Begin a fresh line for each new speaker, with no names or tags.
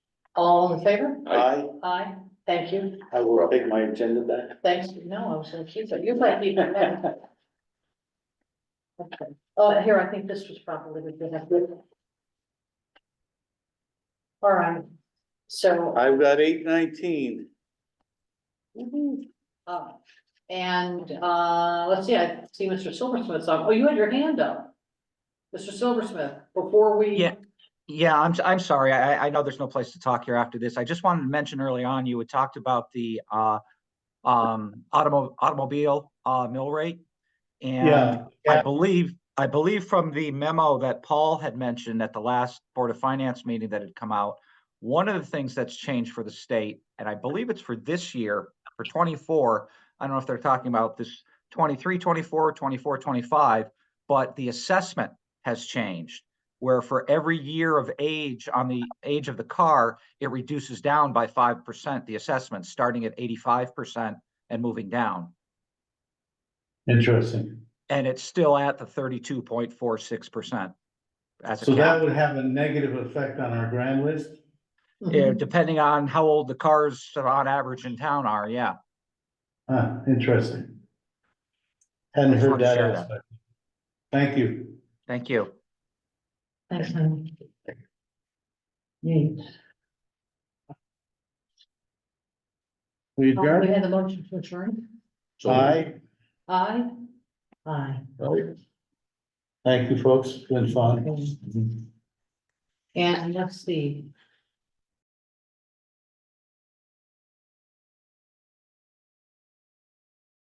All in favor?
I,
Aye, thank you.
I will take my agenda back.
Thanks. No, I was gonna keep it. You might keep it now. Okay. Oh, here, I think this was probably we could have good. All right, so.
I've got eight nineteen.
mhm, uh, And uh, let's see, I see Mr. Silversmith's on. Oh, you had your hand up. Mr. Silversmith, before we.
Yeah. Yeah, I'm, s- I'm sorry. I, I- I know there's no place to talk here after this. I just wanted to mention early on, you had talked about the, uh, um, automo- automobile, uh, mill rate. And I
yeah.
believe, I believe from the memo that Paul had mentioned at the last Board of Finance meeting that had come out, one of the things that's changed for the state, and I believe it's for this year, for twenty-four, I don't know if they're talking about this 23, 24, 24, 25, but the assessment has changed where for every year of age on the age of the car, it reduces down by five percent, the assessment, starting at eighty-five percent and moving down.
Interesting.
And it's still at the thirty-two point four six percent. As
So
a
that
cap,
would have a negative effect on our grand list?
Mhm.
Yeah, depending on how old the cars on average in town are, yeah.
Huh, interesting. Hadn't
Just
heard
wanted to
that
share that.
aspect. Thank you.
Thank you.
Thanks, Naomi. Neat.
We
Uh, We
adjourn?
had a motion to adjourn.
Aye.
Aye. Aye.
Thank you, folks. Been fun.
And let's see,